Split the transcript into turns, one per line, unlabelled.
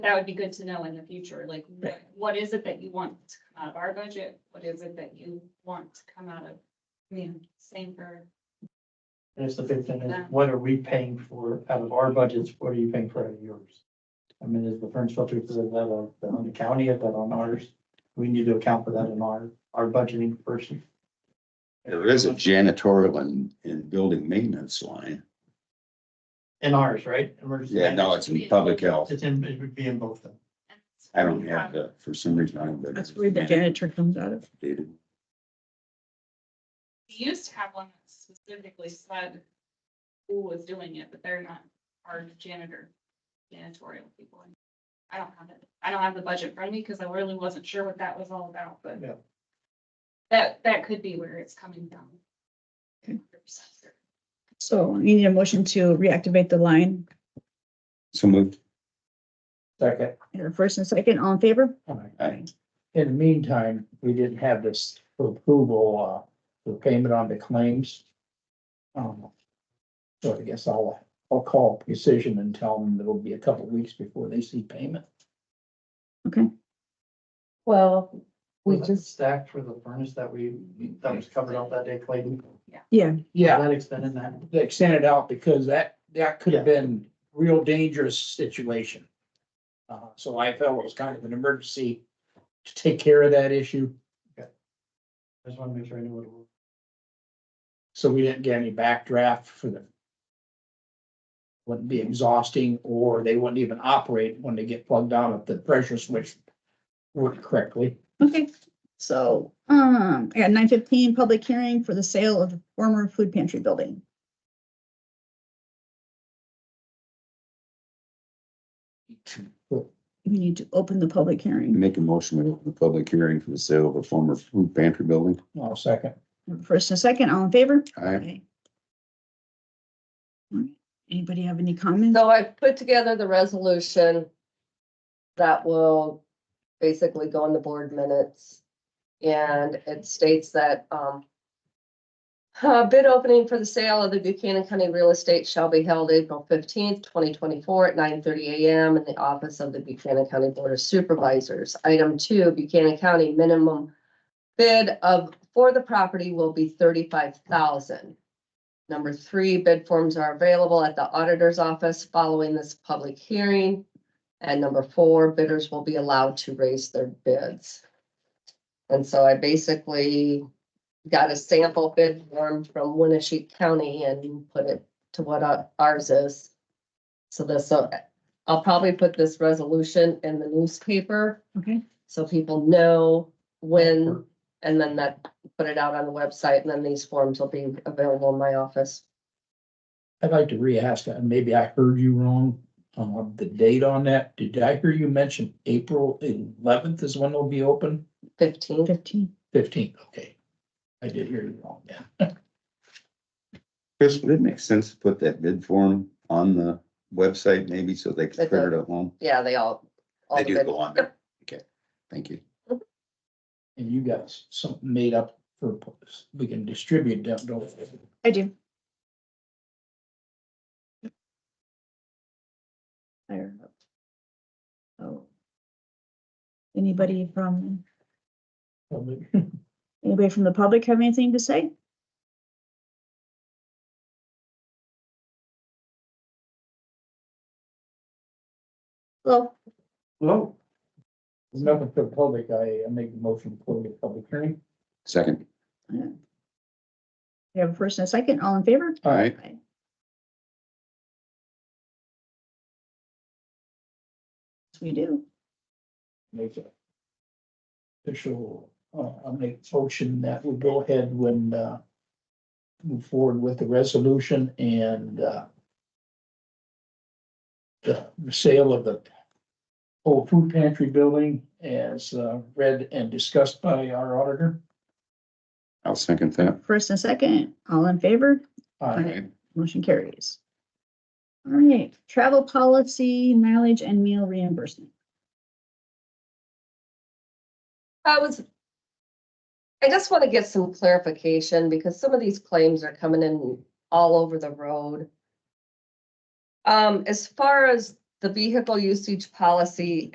That would be good to know in the future, like, what, what is it that you want to come out of our budget? What is it that you want to come out of? I mean, same for,
That's the big thing,
Yeah.
is what are we paying for out of our budgets, what are you paying for out of yours? I mean, is the furnace filter, is that on the- on the county, is that on ours? We need to account for that in our, our budgeting person.
There is a janitorial and, and building maintenance line.
In ours, right? Emergency
Yeah, no, it's in public health.
It's in, it would be in both of them.
I don't have that for some reason. I don't.
That's where the janitor comes out of.
Dated.
we used to have one that specifically said who was doing it, but they're not our janitor, janitorial people. I don't have it. I don't have the budget in front of me because I really wasn't sure what that was all about, but
Yeah.
that, that could be where it's coming from.
Okay. So you need a motion to reactivate the line.
So moved.
Second.
And the first and second, all in favor?
I,
In the meantime, we didn't have this for approval, uh, for payment on the claims. Um, so I guess I'll, I'll call Precision and tell them it'll be a couple weeks before they see payment.
Well, we
Was that
just,
Stacked for the furnace that we, that was covered up that day, Clayton.
Yeah,
Yeah,
That extended that.
they extended out because that, that could have
Yeah.
been real dangerous situation. Uh, so I felt it was kind of an emergency to take care of that issue,
I just want to make sure I knew what it was.
so we didn't get any backdraft for them. Wouldn't be exhausting, or they wouldn't even operate when they get plugged out if the pressure switch worked correctly.
okay. So, um, I got nine fifteen, public hearing for the sale of the former food pantry building. We need to open the public hearing.
make a motion to open the public hearing for the sale of a former food pantry building.
I'll second.
First and second, all in favor?
I,
Okay. All right. Anybody have any comments?
so I put together the resolution that will basically go in the board minutes. And it states that, um, uh, bid opening for the sale of the Buchanan County real estate shall be held April fifteenth, twenty twenty-four at nine thirty AM in the office of the Buchanan County Board of Supervisors. Item two, Buchanan County minimum bid of, for the property will be thirty-five thousand. Number three, bid forms are available at the auditor's office following this public hearing. And number four, bidders will be allowed to raise their bids. And so I basically got a sample bid form from Winnebago County and put it to what our- ours is. So this, so I'll probably put this resolution in the newspaper
Okay,
so people know when, and then that, put it out on the website, and then these forms will be available in my office.
I'd like to re-ask, and maybe I heard you wrong, um, the date on that. Did I hear you mention April eleventh is when they'll be open?
Fifteen.
fifteen.
Fifteenth, okay. I did hear you wrong, yeah.
Chris, would it make sense to put that bid form on the website maybe so they can
It
print it at home?
Yeah, they all. all
They
the
do
bid-
go on there. Okay, thank you.
And you got s- something made up for, we can distribute them, don't we?
I do. Fire up. Oh. Anybody from,
Probably.
anybody from the public have anything to say? Well,
Hello? There's Nothing for the public. I I make a motion to close the public hearing.
Second.
we have a first and a second, all in favor?
All right.
Yes, We do.
Make it official, uh, I'll make a motion that we go ahead when, uh, move forward with the resolution and, uh, the the sale of the old food pantry building as, uh, read and discussed by our auditor.
I'll second that.
First and second, all in favor?
Uh,
Aye. Motion carries. All right, travel policy, mileage and meal reimbursement.
I was. I just want to get some clarification because some of these claims are coming in all over the road. Um, as far as the vehicle usage policy